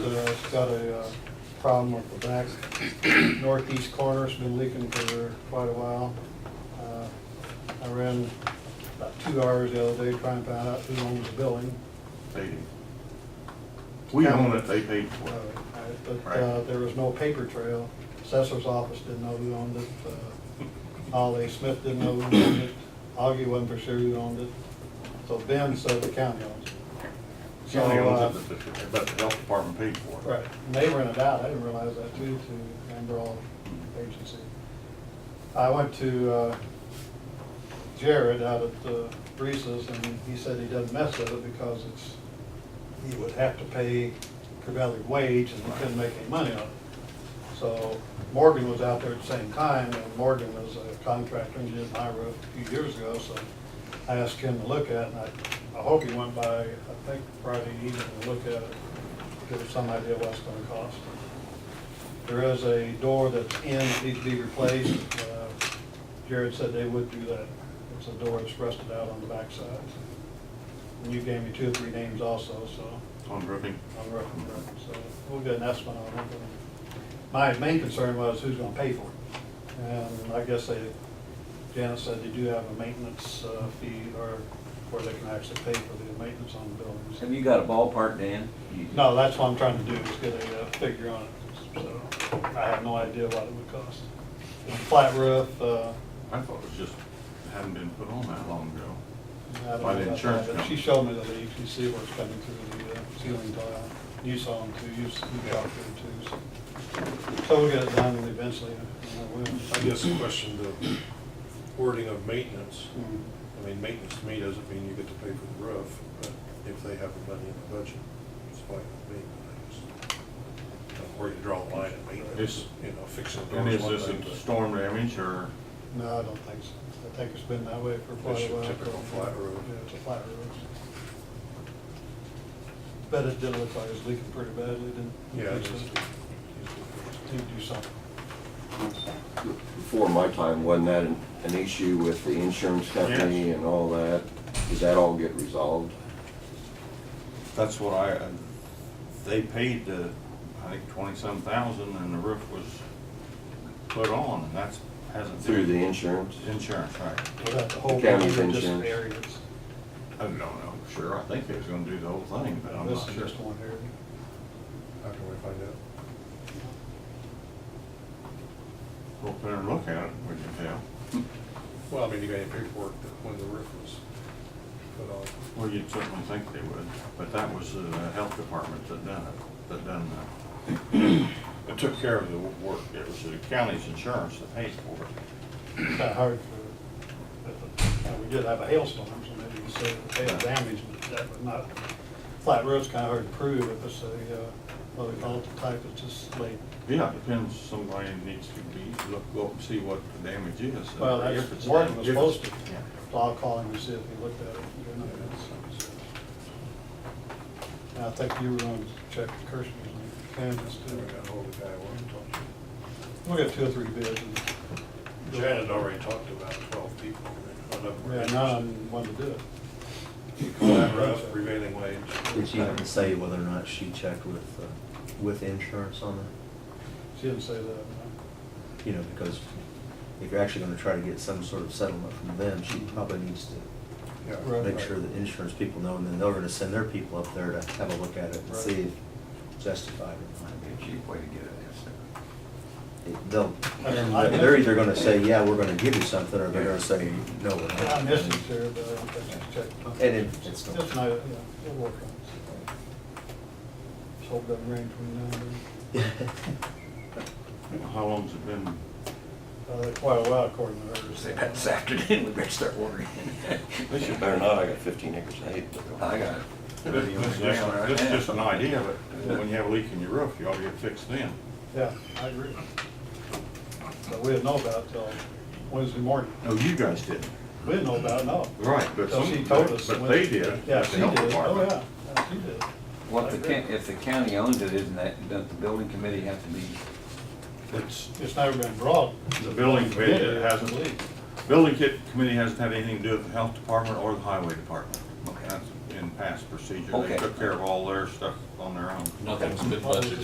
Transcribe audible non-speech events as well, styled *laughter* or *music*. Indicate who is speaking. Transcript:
Speaker 1: It's got a uh, problem with the back northeast corner, it's been leaking for quite a while. Uh, I ran about two hours the other day trying to find out who owns the building.
Speaker 2: They did. We own it, they paid for
Speaker 1: Uh,
Speaker 2: it.
Speaker 1: But uh, there was no paper trail. Assessor's office didn't know who owned it. Uh, Ollie Smith didn't know who owned it. Augie wasn't for sure who owned it. So Ben said the county owns it. So,
Speaker 2: County owns
Speaker 1: uh,
Speaker 2: it, but the- but the health department paid for it.
Speaker 1: Right, and they rented out, I didn't realize that too, to Amberall Agency. I went to uh, Jared out at uh, Reese's, and he said he doesn't mess with it because it's, he would have to pay prevailing wage and he couldn't make any money on it. So Morgan was out there at the same time, and Morgan was a contractor and did my roof a few years ago, so I asked him to look at it, and I, I hope he went by, I think Friday evening, to look at it, give us some idea what it's gonna cost. There is a door that's in, that needs to be replaced. Uh, Jared said they would do that. It's a door that's rusted out on the backside. And you gave me two or three names also, so,
Speaker 2: On roofing.
Speaker 1: on rough and rough, so we'll get an estimate on it. My main concern was who's gonna pay for it. And I guess they, Janet said they do have a maintenance uh, fee or where they can actually pay for the maintenance on the buildings.
Speaker 3: Have you got a ballpark, Dan? You-
Speaker 1: No, that's what I'm trying to do, is get a uh, figure on it, so I have no idea what it would cost. It's a Flat roof, uh.
Speaker 2: I thought it was just, hadn't been put on that long ago.
Speaker 1: I don't know
Speaker 2: By the
Speaker 1: about
Speaker 2: insurance
Speaker 1: that, but She
Speaker 2: company.
Speaker 1: showed me the leak, you see where it's coming through the uh, ceiling tile, you saw them too, you, s- you got them too, so. So we'll get it done eventually, and I will.
Speaker 4: I guess the question, the wording of maintenance,
Speaker 1: Mm.
Speaker 4: I mean, maintenance to me doesn't mean you get to pay for the roof, but if they have the money in the budget, it's fine with me. but I just don't know Where you draw the line at
Speaker 2: It's-
Speaker 4: maintenance, you know, fixing
Speaker 2: And
Speaker 4: doors
Speaker 2: is
Speaker 4: one
Speaker 2: this
Speaker 4: thing,
Speaker 2: a
Speaker 4: but
Speaker 2: storm damage or,
Speaker 1: No, I don't think so, I think it's been that way for quite
Speaker 4: It's
Speaker 1: a
Speaker 4: your
Speaker 1: while.
Speaker 4: typical flat roof.
Speaker 1: Yeah, it's a flat roof. But it did look like it was leaking pretty badly, didn't? it?
Speaker 4: Yeah, it
Speaker 1: So-
Speaker 4: is.
Speaker 1: Need to do something.
Speaker 5: Before my time, wasn't that an, an issue with the insurance company
Speaker 2: Yes.
Speaker 5: and all that? Does that all get resolved?
Speaker 2: that's what I, uh, they paid the, I think twenty-some thousand and the roof was put on and that's, hasn't. been-
Speaker 5: Through the insurance?
Speaker 2: Insurance, right.
Speaker 1: Well, that's a whole
Speaker 5: The county's
Speaker 1: bunch of different
Speaker 5: insurance.
Speaker 1: areas.
Speaker 2: I don't know, sure, I think they was gonna do the whole thing, but I'm
Speaker 1: This
Speaker 2: not
Speaker 1: is
Speaker 2: sure.
Speaker 1: just one area.
Speaker 4: How can we find out?
Speaker 2: Go up there and look at it, would you tell?
Speaker 4: Well, I mean, you got any paperwork that when the roof was put on?
Speaker 2: Well, you'd certainly think they would, but that was the health department that done it, that done the, that took care of the work. It was the county's insurance that paid for it.
Speaker 1: It's kind of hard for, but, uh, we did have a hailstorm, so maybe you say the hail damage, but that would not, flat roof's kind of hard to prove if it's a, uh, what we call it, the type that's just laid.
Speaker 2: Yeah, depends, somebody needs to be, look, go up and see what the damage is. and
Speaker 1: Well, that's
Speaker 2: if it's-
Speaker 1: Morgan was
Speaker 2: if it's-
Speaker 1: supposed to.
Speaker 2: yeah.
Speaker 1: So I'll call him and see if he looked at it. They're not gonna send us it. And I think you were going to check the Kirschner's and Kansas
Speaker 4: Then we
Speaker 1: too.
Speaker 4: got hold of the guy I wanted to talk to.
Speaker 1: We'll get two or three bids and,
Speaker 4: Jan had already talked to about twelve people. and none of them were
Speaker 1: yeah, none wanted to do it.
Speaker 4: Flat roof, prevailing wage.
Speaker 6: Did she even say whether or not she checked with, uh, with insurance on that?
Speaker 1: She didn't say that. no.
Speaker 6: You know, because if you're actually gonna try to get some sort of settlement from them, she probably needs to
Speaker 4: Yeah.
Speaker 1: Right.
Speaker 6: make sure that insurance people know, and then they're gonna send their people up there to have a look at it and see if it's justified or not.
Speaker 7: Might be a cheap way to get an estimate.
Speaker 6: It- They'll, and they're either gonna say, yeah, we're gonna give you something, or they're gonna say, no, we're not.
Speaker 1: I missed it, sir, but I don't think she checked.
Speaker 6: And if it's not-
Speaker 1: Just, no, yeah, we'll work on it. Just hope it doesn't rain between now and then.
Speaker 6: *laughs*
Speaker 2: How long's it been?
Speaker 1: Uh, that's Quite a while according to her.
Speaker 7: Say that this afternoon, *laughs* we better start ordering.
Speaker 5: They should better not, I got fifteen acres of hay.
Speaker 7: I got it. Already on the
Speaker 2: This
Speaker 7: ground right
Speaker 2: this is
Speaker 7: now.
Speaker 2: just an idea, but when you have a leak in your roof, you ought to get it fixed then.
Speaker 1: Yeah, I agree. But we didn't know about it till Wednesday morning.
Speaker 2: No, Oh, you guys didn't.
Speaker 1: We didn't know about it, no.
Speaker 2: Right, but
Speaker 1: Till she
Speaker 2: some-
Speaker 1: told us.
Speaker 2: but
Speaker 1: when-
Speaker 2: they did,
Speaker 1: Yeah,
Speaker 2: the
Speaker 1: she
Speaker 2: health
Speaker 1: did, oh,
Speaker 2: department.
Speaker 1: yeah, yeah, she did.
Speaker 7: What the, ca- if the county owns it, isn't that, doesn't the building committee have to be,
Speaker 2: It's,
Speaker 1: It's never been brought.
Speaker 2: The building committee
Speaker 1: Yeah,
Speaker 2: hasn't,
Speaker 1: believe.
Speaker 2: building kit committee hasn't had anything to do with the health department or the highway department. That's in past procedure. They
Speaker 8: Okay.
Speaker 2: took care of all their stuff on their own.
Speaker 1: Nothing's been budgeted.